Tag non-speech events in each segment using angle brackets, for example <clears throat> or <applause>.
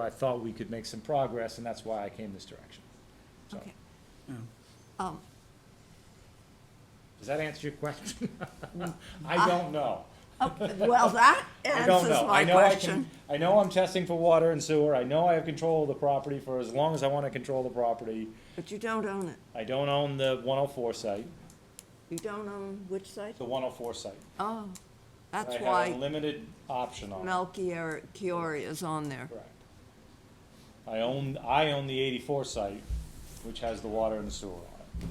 I thought we could make some progress, and that's why I came this direction. So, Okay. Um, does that answer your question? <laughs> I don't know. oh, Well, that <laughs> I don't answers know. I my know I question. can, I know I'm testing for water and sewer. I know I have control of the property for as long as I want to control the property. But you don't own it. I don't own the 104 site, You don't own which site? the 104 site. Oh, that's I have a why limited option on it. Melchior Chiori is on there. Correct. I own, I own the 84 site, which has the water and the sewer on it.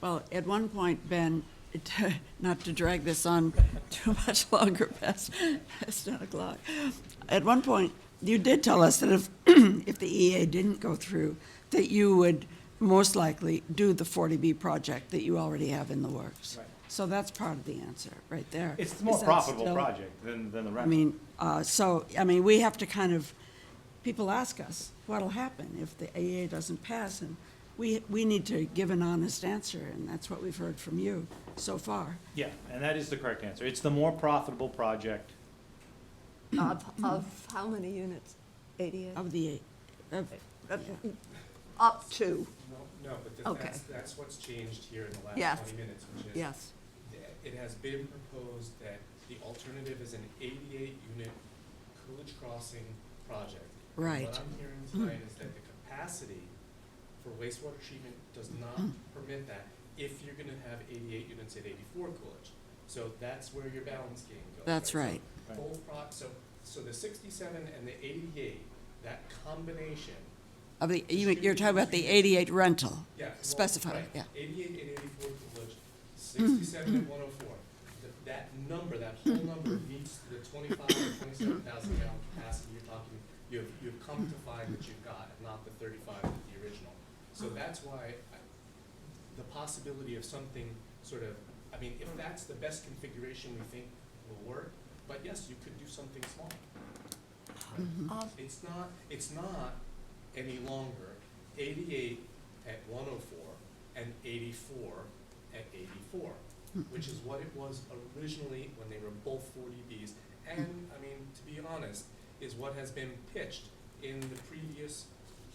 Well, at one point, Ben, <laughs> it- not to drag this on too much longer past, past nine o'clock, at one point, you did tell us that if, <clears throat> if the EA didn't go through, that you would most likely do the 40B project that you already have in the works. Right. So that's part of the answer, right there. It's the more Is that profitable still- project than, than the I rest. mean, uh, so, I mean, we have to kind of, people ask us, what'll happen if the AA doesn't pass? And we, we need to give an honest answer, and that's what we've heard from you so far. Yeah, and that is the correct answer. It's the more profitable project. Of, of how many units? Eighty-eight? Of the, of, yeah. Up to, No, no, but the- Okay. that's, that's what's changed here in the Yes. last twenty minutes, which is yes. th- it has been proposed that the alternative is an eighty-eight unit Coolidge Crossing project. And Right. What I'm hearing tonight is that the capacity for wastewater treatment does not Mm-hmm. permit that if you're gonna have eighty-eight units at eighty-four Coolidge. So that's where your balance game goes. That's right. So Both pro, so, so the sixty-seven and the eighty-eight, that combination of the, you- you're talking about the 88 rental. Yeah. well, Specify, right. yeah. Mm-hmm. Eighty-eight and eighty-four Coolidge, sixty-seven and one oh four. That number, that whole Mm-hmm. number meets the twenty-five or twenty-seven thousand gallon capacity you're talking, you've, you've come to find that you've got, and not the thirty-five of the original. So Mm-hmm. that's why I, the possibility of something sort of, I mean, if that's the best configuration we think will work, but yes, you could do something small. Right? Mm-hmm. Of- It's not, it's not any longer eighty-eight at one oh four and eighty-four at eighty-four, which is what it was originally when they were both forty Bs. And, I mean, to be honest, is what has been pitched in the previous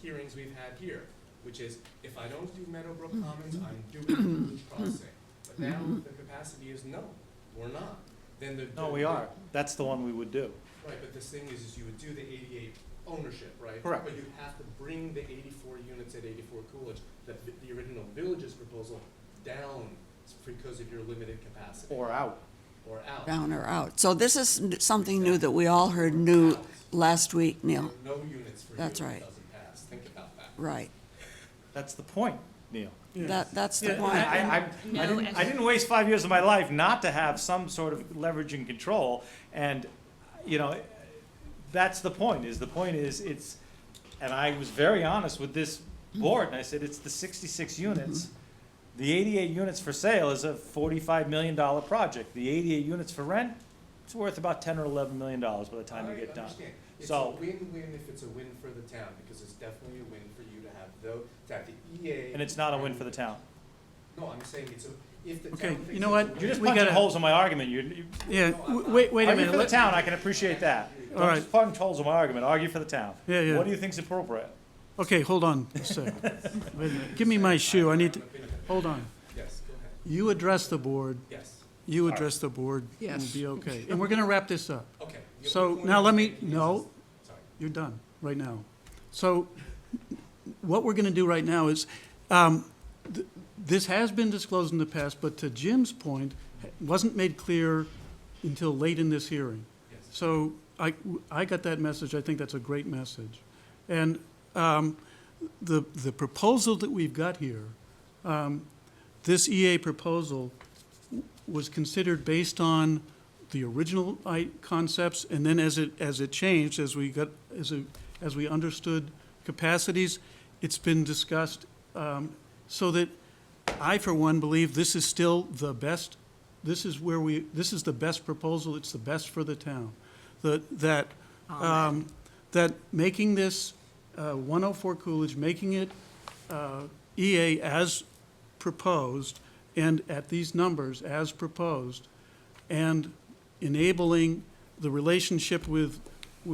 hearings we've had here, which is, if I don't do Meadowbrook Commons, I'm doing Blue Crossing. But now the capacity is no, we're not, then the. No, we are. That's the one we would do. Right, but this thing is, is you would do the eighty-eight ownership, right? Correct. But you have to bring the eighty-four units at eighty-four Coolidge, the, the original village's proposal, down because of your limited capacity, Or out. or out. down or out. So this is n- something new that we all heard new last week, Neil. No units for you if That's it right. doesn't pass, think about that. Right. That's the point, Neil. That, that's the Yeah, point. I, I, I, I, didn't, I didn't waste five years of my life not to have some sort of leverage and control. And, you know, that's the point, is the point is, it's, and I was very honest with this board, and I said, it's the sixty-six units. The eighty-eight units for sale is a forty-five million dollar project. The eighty-eight units for rent, it's worth about ten or eleven million dollars by the time you I get done. understand. It's a So- win-win if it's a win for the town, because it's definitely a win for you to have though, to have the EA. And it's not a win for the town. No, I'm saying it's a, if the town Okay, thinks. you know it's a what? win- You're just We punching gotta- holes in my argument. You're, you Yeah, w- wait, wait a argue minute. for the Let- town, I can appreciate that. All Don't right. just punch holes in my argument, argue for the town. Yeah, yeah. What do you think's appropriate? Okay, hold on a second. Wait a minute. Give me my shoe, I need to, hold on. Yes, go ahead, You address the board, yes, you address the board, and Yes. we'll be okay. And we're gonna wrap this up. okay. Your So point now is let that me- it is- no. Sorry. You're done, right now. So what we're gonna do right now is, um, th- this has been disclosed in the past, but to Jim's point, wasn't made clear until late in this hearing. Yes. So I, I got that message. I think that's a great message. And um, the, the proposal that we've got here, um, this EA proposal was considered based on the original I, concepts, and then as it, as it changed, as we got, as, it- as we understood capacities, it's been discussed, um, so that I, for one, believe this is still the best, this is where we, this is the best proposal, it's the best for the town. That, that, um, that making this, uh, one oh four Coolidge, making it, uh, EA as proposed and at these numbers as proposed, and enabling the relationship with